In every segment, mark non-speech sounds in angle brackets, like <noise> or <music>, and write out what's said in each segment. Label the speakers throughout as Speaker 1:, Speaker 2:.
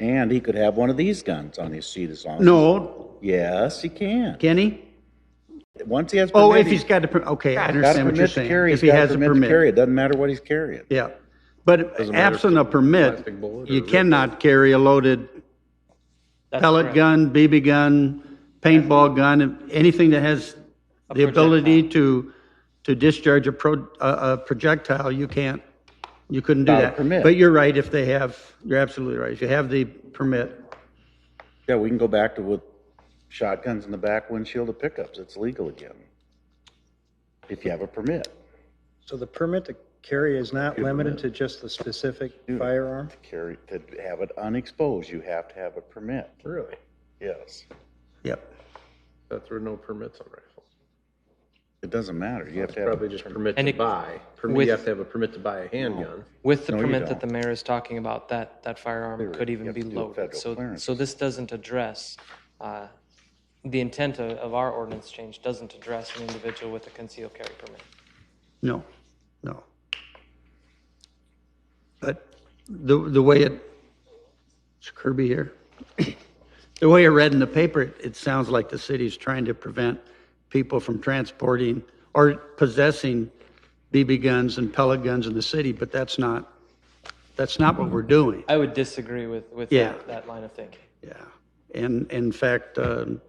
Speaker 1: And he could have one of these guns on his seat as long as.
Speaker 2: No,
Speaker 1: Yes, he can.
Speaker 2: can he?
Speaker 1: Once he has.
Speaker 2: Oh,
Speaker 1: permit,
Speaker 2: if
Speaker 1: he-
Speaker 2: he's got a, per- okay, I
Speaker 1: Got a
Speaker 2: understand what you're
Speaker 1: permit to
Speaker 2: saying.
Speaker 1: carry,
Speaker 2: If
Speaker 1: he's got
Speaker 2: he
Speaker 1: a
Speaker 2: has a
Speaker 1: permit to carry, it
Speaker 2: permit.
Speaker 1: doesn't matter what he's carrying.
Speaker 2: Yeah. But
Speaker 3: Doesn't matter if
Speaker 2: absent a
Speaker 3: it's a
Speaker 2: permit,
Speaker 3: plastic bullet
Speaker 2: you
Speaker 3: or-
Speaker 2: cannot carry a loaded
Speaker 4: That's
Speaker 2: pellet
Speaker 4: correct.
Speaker 2: gun, BB gun, paintball gun, anything that has the ability to, to discharge a pro, a, a projectile, you can't, you couldn't do
Speaker 1: Without a
Speaker 2: that.
Speaker 1: permit.
Speaker 2: But you're right, if they have, you're absolutely right, if you have the permit.
Speaker 1: Yeah, we can go back to with shotguns in the back windshield of pickups. It's legal again. If you have a permit
Speaker 5: So the permit to carry is not limited to just the specific firearm?
Speaker 1: to carry, to have it unexposed, you have to have a permit.
Speaker 3: Really?
Speaker 1: Yes.
Speaker 2: Yep.
Speaker 3: That there are no permits on rifles.
Speaker 1: It doesn't matter. You have to have. a
Speaker 3: Probably just permit
Speaker 4: And
Speaker 3: to
Speaker 4: it-
Speaker 3: buy. Permit,
Speaker 4: with-
Speaker 3: you have to have a permit to buy a handgun.
Speaker 4: With the
Speaker 1: No, you
Speaker 4: permit
Speaker 1: don't.
Speaker 4: that the mayor is talking about, that, that firearm
Speaker 1: Clear it.
Speaker 4: could
Speaker 1: You
Speaker 4: even
Speaker 1: have
Speaker 4: be
Speaker 1: to do a
Speaker 4: loaded.
Speaker 1: federal
Speaker 4: So,
Speaker 1: clearance.
Speaker 4: so this doesn't address, uh, the intent of, of our ordinance change doesn't address an individual with a concealed carry permit.
Speaker 2: No, no. But the, the way it, it's Kirby here. <coughs> The way I read in the paper, it- it sounds like the city's trying to prevent people from transporting or possessing BB guns and pellet guns in the city, but that's not, that's not what we're doing.
Speaker 4: I would disagree with, with
Speaker 2: Yeah.
Speaker 4: that, that line of thinking.
Speaker 2: Yeah, and in fact, um,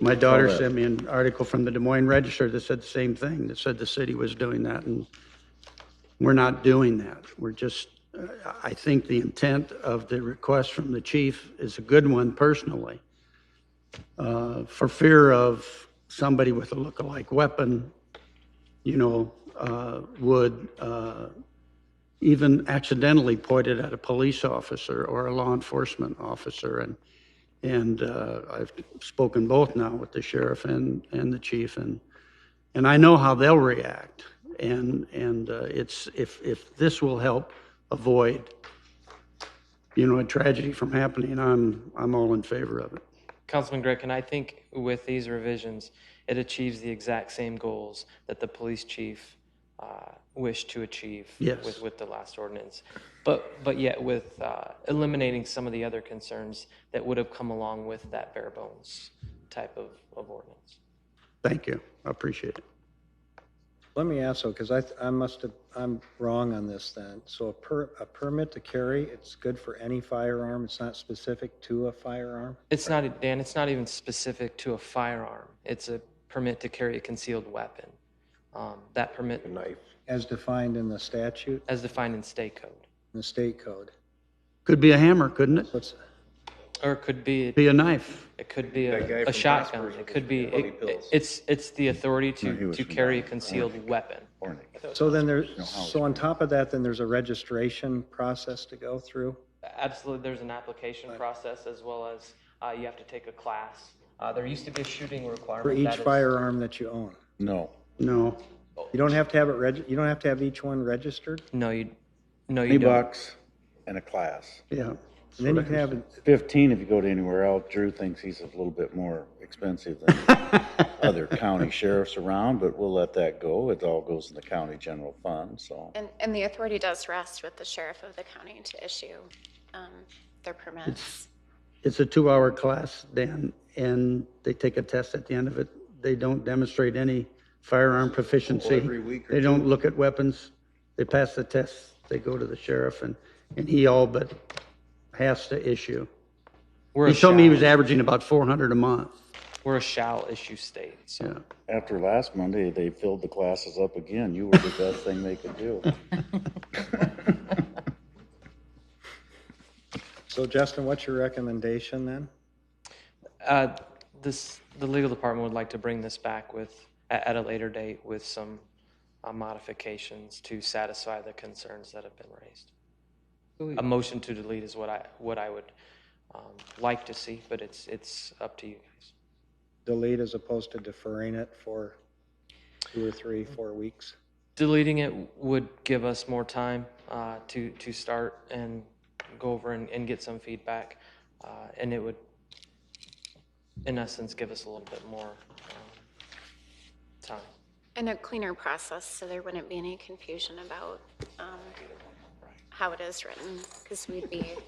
Speaker 2: my daughter
Speaker 1: that.
Speaker 2: sent me an article from the Des Moines Register that said the same thing, that said the city was doing that, and we're not doing that. We're just, uh, I think the intent of the request from the chief is a good one personally, uh, for fear of somebody with a lookalike weapon, you know, uh, would uh, even accidentally pointed at a police officer or a law enforcement officer. And, and uh, I've spoken both now with the sheriff and, and the chief, and, and I know how they'll react. And, and uh, it's, if, if this will help avoid, you know, a tragedy from happening, I'm, I'm all in favor of it.
Speaker 4: Councilman Gregg, and I think with these revisions, it achieves the exact same goals that the police chief uh, wished to achieve
Speaker 2: Yes.
Speaker 4: with, with the last ordinance. But, but yet with uh, eliminating some of the other concerns that would have come along with that bare bones type of, of ordinance.
Speaker 2: Thank you, I appreciate it.
Speaker 5: Let me ask though, because I, I must have, I'm wrong on this then. So a per, a permit to carry, it's good for any firearm, it's not specific to a firearm?
Speaker 4: It's not, Dan, it's not even specific to a firearm. It's a permit to carry a concealed weapon. Um, That permit,
Speaker 3: A knife.
Speaker 5: As defined in the statute,
Speaker 4: as defined in state code,
Speaker 5: in the state code.
Speaker 2: Could be a hammer, couldn't it?
Speaker 5: What's,
Speaker 4: or it could be.
Speaker 2: Be a knife.
Speaker 4: It could be
Speaker 3: That guy
Speaker 4: a, a
Speaker 3: from
Speaker 4: shotgun.
Speaker 3: Casper's
Speaker 4: It
Speaker 3: was
Speaker 4: could be,
Speaker 3: Bloody
Speaker 4: it-
Speaker 3: Pills.
Speaker 4: it's, it's the authority
Speaker 1: No, he
Speaker 4: to,
Speaker 1: was
Speaker 4: to
Speaker 1: from
Speaker 4: carry a
Speaker 1: Bloody-
Speaker 3: <laughs>
Speaker 4: concealed weapon.
Speaker 1: warning.
Speaker 5: so then there's,
Speaker 1: how it's
Speaker 5: so on top of that, then there's a registration process to go through?
Speaker 4: Absolutely, there's an application process as well as uh, you have to take a class. Uh, There used to be a shooting requirement.
Speaker 5: For
Speaker 4: that
Speaker 5: each
Speaker 4: is-
Speaker 5: firearm that you own?
Speaker 1: No.
Speaker 2: No,
Speaker 5: You don't have to have it reg, you don't have to have each one registered?
Speaker 4: No, you, no, you
Speaker 1: Twenty
Speaker 4: don't.
Speaker 1: bucks and a class.
Speaker 2: yeah.
Speaker 5: And then you can have, it-
Speaker 1: Fifteen if you go to anywhere else. Drew thinks he's a little bit more expensive than other county sheriffs around, but we'll let that go. It all goes in the county general fund, so.
Speaker 6: And, and the authority does rest with the sheriff of the county to issue um, their permits.
Speaker 2: It's a two-hour class, Dan, and they take a test at the end of it. They don't demonstrate any firearm proficiency. They don't look at weapons. They pass the test, they go to the sheriff, and, and he all but has to issue.
Speaker 4: We're
Speaker 2: He
Speaker 4: a
Speaker 2: told me he was
Speaker 4: shall,
Speaker 2: averaging about 400 a month.
Speaker 4: we're a shall issue state, so.
Speaker 2: Yeah.
Speaker 1: After last Monday, they filled the classes up again. You were the best thing they could do.
Speaker 5: so Justin, what's your recommendation then?
Speaker 4: Uh, This, the legal department would like to bring this back with, at, at a later date with some uh, modifications to satisfy the concerns that have been raised. A motion to delete is what I, what I would um, like to see, but it's, it's up to you guys.
Speaker 5: Delete as opposed to deferring it for two or three, four weeks?
Speaker 4: Deleting it would give us more time uh, to, to start and go over and, and get some feedback. uh, And it would, in essence, give us a little bit more um, time.
Speaker 6: And a cleaner process, so there wouldn't be any confusion about um, how it is written, because we'd be